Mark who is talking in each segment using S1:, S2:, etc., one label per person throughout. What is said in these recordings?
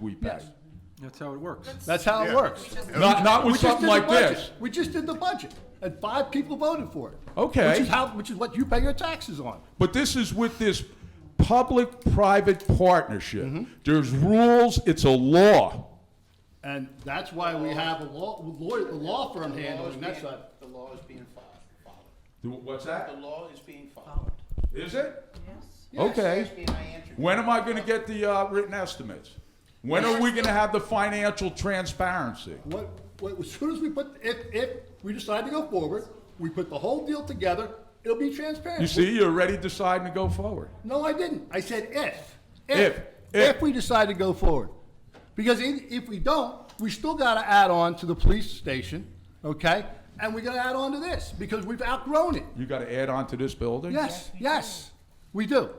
S1: we pay.
S2: Yes.
S3: That's how it works.
S2: That's how it
S4: Yeah.
S2: works.
S1: Not, not
S2: We
S1: with
S2: just
S1: something
S2: did the
S1: like
S2: budget.
S1: this.
S2: We just did the budget, and five people voted for it.
S1: Okay.
S2: Which is how, which is what you pay your taxes on.
S1: But this is with this public-private partnership.
S2: Mm-hmm.
S1: There's rules, it's a law.
S2: And that's why we have a law, lawyer, a law firm
S5: The law is
S2: handling that
S5: being-
S2: side.
S5: The law is being fo- followed.
S1: Do- What's
S5: The
S1: that?
S5: law is being followed.
S1: Is it?
S5: Yes,
S1: Okay.
S5: ask me and I answered.
S1: When am I gonna get the, uh, written estimates? When are we gonna have the financial transparency?
S2: What, what, as soon as we put, if, if we decide to go forward, we put the whole deal together, it'll be transparent.
S1: You see, you're already deciding to go forward.
S2: No, I didn't. I said if.
S1: If.
S2: If.
S1: If.
S2: If we decide to go forward. Because i- if we don't, we still gotta add on to the police station, okay? And we gotta add on to this, because we've outgrown it.
S1: You gotta add on to this building?
S2: Yes, yes, we do.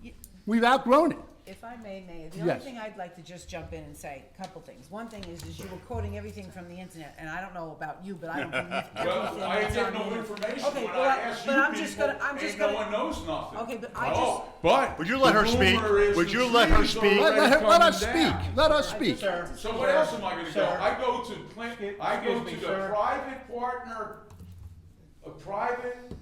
S6: Ye-
S2: We've outgrown it.
S6: If I may, Mayor, the only
S2: Yes.
S6: thing I'd like to just jump in and say, a couple things. One thing is, is you were quoting everything from the internet, and I don't know about you, but I don't believe everything
S1: Well, I
S6: that's
S1: ain't
S6: on
S1: get no
S6: the-
S1: information
S6: Okay,
S1: when
S6: well,
S1: I asked you
S6: But I'm just
S1: people,
S6: gonna, I'm just
S1: ain't
S6: gonna.
S1: no one knows nothing.
S6: Okay, but I
S1: Oh,
S6: just-
S1: But.
S4: Would you let
S1: the
S4: her speak?
S1: rumor is
S4: Would
S1: the
S4: you let her
S1: tree's
S4: speak?
S2: Let,
S1: already
S2: let her, let us
S1: coming down.
S2: speak, let us speak.
S5: Sir.
S1: So what else am I gonna go?
S5: Sir.
S1: I go to Clint, I go
S5: Excuse
S1: to
S5: me,
S1: the
S5: sir.
S1: private partner, a private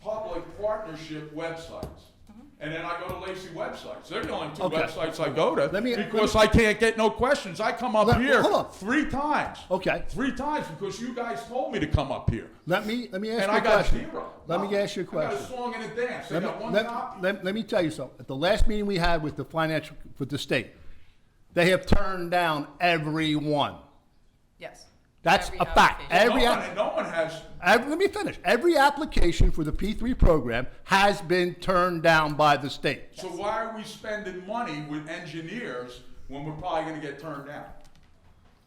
S1: public partnership websites.
S6: Mm-hmm.
S1: And then I go to Lacy websites. They're the only two
S2: Okay.
S1: websites I go to
S2: Let me- let
S1: because
S2: me-
S1: I can't get no questions. I come up
S2: Let-
S1: here
S2: hold on.
S1: three times.
S2: Okay.
S1: Three times because you guys told me to come up here.
S2: Let me, let me ask
S1: And
S2: you
S1: I
S2: a
S1: got
S2: question.
S1: zero.
S2: Let me
S1: Nothing.
S2: ask you a
S1: I got
S2: question.
S1: a song and a dance. I
S2: Let me,
S1: got one
S2: let,
S1: copy.
S2: let- let me tell you something. At the last meeting we had with the financial, with the state, they have turned down everyone.
S7: Yes.
S2: That's
S7: Every
S2: a fact.
S7: application.
S1: No
S2: Every,
S1: one,
S2: app-
S1: no one has,
S2: ev- let me finish. Every application for the P3 program has been turned down by the state.
S1: so why are we spending money with engineers when we're probably gonna get turned down?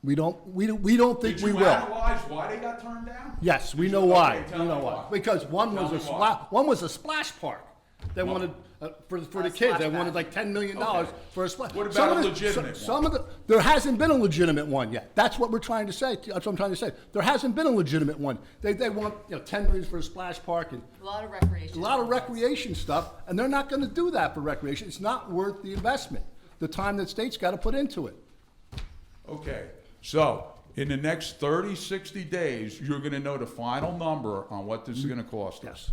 S2: We don't, we, don't- we don't think
S1: Did
S2: we
S1: you
S2: will.
S1: analyze why they got turned down?
S2: Yes, we
S1: Did
S2: know
S1: you-
S2: why.
S1: okay,
S2: We
S1: tell
S2: know
S1: me
S2: why. Because one
S1: Tell
S2: was a
S1: me why.
S2: splash, one was a splash park. They wanted, uh, for, for the
S7: A
S2: kids, they
S7: splash
S2: wanted
S7: pad.
S2: like ten million dollars for a splash.
S1: What
S2: Some
S1: about
S2: of
S1: a
S2: the- so-
S1: legitimate
S2: Some of the, there hasn't been a legitimate one yet. That's what we're trying to say. That's what I'm trying to say. There hasn't been a legitimate one. They, they want, you know, ten million for a splash park and
S7: A lot of
S2: a
S7: recreation.
S2: lot of recreation stuff, and they're not gonna do that for recreation. It's not worth the investment, the time that state's gotta put into it.
S1: Okay, so in the next 30, 60 days, you're gonna know the final number on what this is gonna cost us.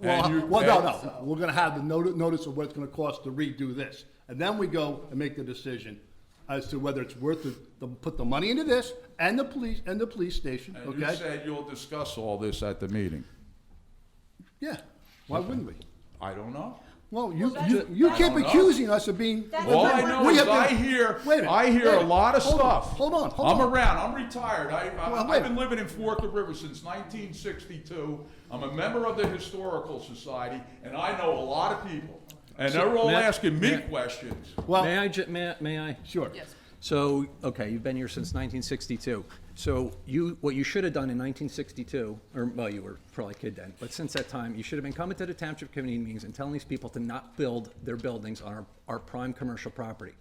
S2: Well,
S1: And you-
S2: well, no, no, we're gonna have the notice, notice of what it's gonna cost to redo this. And then we go and make the decision as to whether it's worth it, to put the money into this and the police, and the police station,
S1: And you
S2: okay?
S1: said you'll discuss all this at the meeting.
S2: Yeah, why wouldn't we?
S1: I don't know.
S2: Well, you, you, you keep
S1: know.
S2: accusing us of being.
S7: That's
S1: All
S7: what
S1: I
S7: we're
S1: know
S2: We
S1: is
S2: have been-
S1: I hear,
S2: Wait a minute,
S1: I hear
S2: wait
S1: a
S2: minute.
S1: lot of
S2: Hold on,
S1: stuff.
S2: Hold on, hold
S1: I'm
S2: on.
S1: around. I'm retired. I,
S2: Well,
S1: I,
S2: wait.
S1: I've been living in Forked River since 1962. I'm a member of the Historical Society, and I know a lot of people. And they're all
S8: Matt-
S1: asking me
S8: Matt-
S1: questions.
S8: May
S2: Well,
S8: I, ju- may, I- may I?
S2: sure.
S7: Yes.
S8: So, okay, you've been here since 1962. So you, what you should have done in 1962, or, well, you were probably a kid then, but since that time, you should have been coming to the township committee meetings and telling these people to not build their buildings on our, our prime commercial property.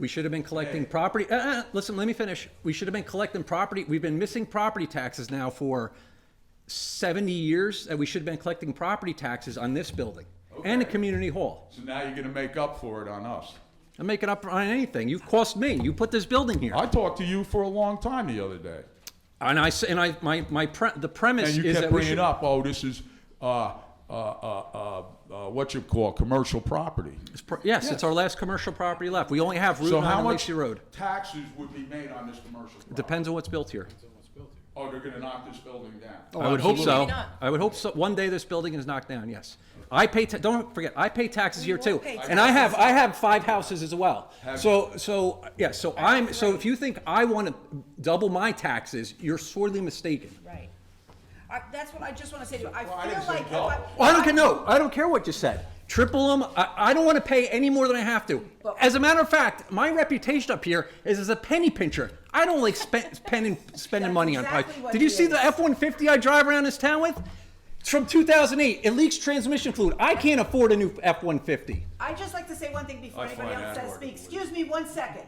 S8: We should have been collecting property, uh, uh, listen, let me finish. We should have been collecting property, we've been missing property taxes now for 70 years, and we should have been collecting property taxes on this building and the
S1: Okay.
S8: community hall.
S1: So now you're going to make up for it on us.
S8: I'm making up on anything. You cost me. You put this building here.
S1: I talked to you for a long time the other day,
S8: and I s- and I my my pre, the premise
S1: and you
S8: is
S1: kept
S8: that we
S1: bringing
S8: should,
S1: up, "Oh, this is uh, uh, uh, uh, uh, what you call commercial property."
S8: it's pr- yes, it's our last commercial property left. We only have Route
S1: So
S8: 9
S1: how
S8: and
S1: much
S8: Lacey Road.
S1: taxes would be made on this commercial? Property?
S8: Depends on what's built here.
S1: Oh, they're going to knock this building down.
S8: I would hope so.
S7: Maybe not.
S8: I would hope so. One day this building is knocked down. Yes, I pay. Ta- don't forget, I pay taxes here
S6: will
S8: too,
S6: pay
S8: and I have I have five houses as well.
S1: Have
S8: So so yeah. So I'm so if you think I want to double my taxes, you're sorely mistaken.
S6: Right. I, that's what I just wanna say to you. I
S1: Well, I didn't
S6: feel
S1: say
S6: like. if
S1: double.
S8: Well, I don't care. No, I don't care what you said. Triple them. I, I don't want to pay any more than I have to. As a matter of fact, my reputation up here is as a penny pincher. I don't like spend, spending spending
S6: That's
S8: money on
S6: exactly
S8: pipe.
S6: what
S8: Did you
S6: he
S8: see the
S6: is.
S8: F one fifty I drive around this town with? It's from two thousand eight. It leaks transmission fluid. I can't afford a new F one fifty.
S6: I'd just like to say one thing before
S1: I
S6: anybody
S1: find
S6: else
S1: that
S6: says
S1: hard to
S6: speak.
S1: believe.
S6: Excuse me one second.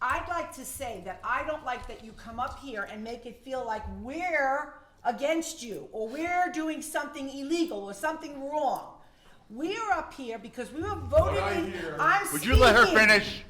S6: I'd like to say that I don't like that you come up here and make it feel like we're against you or we're doing something illegal or something wrong. We are up here because we were voted
S1: I
S6: in.
S1: hear-
S6: I'm
S4: Would you let her
S6: speaking.
S4: finish?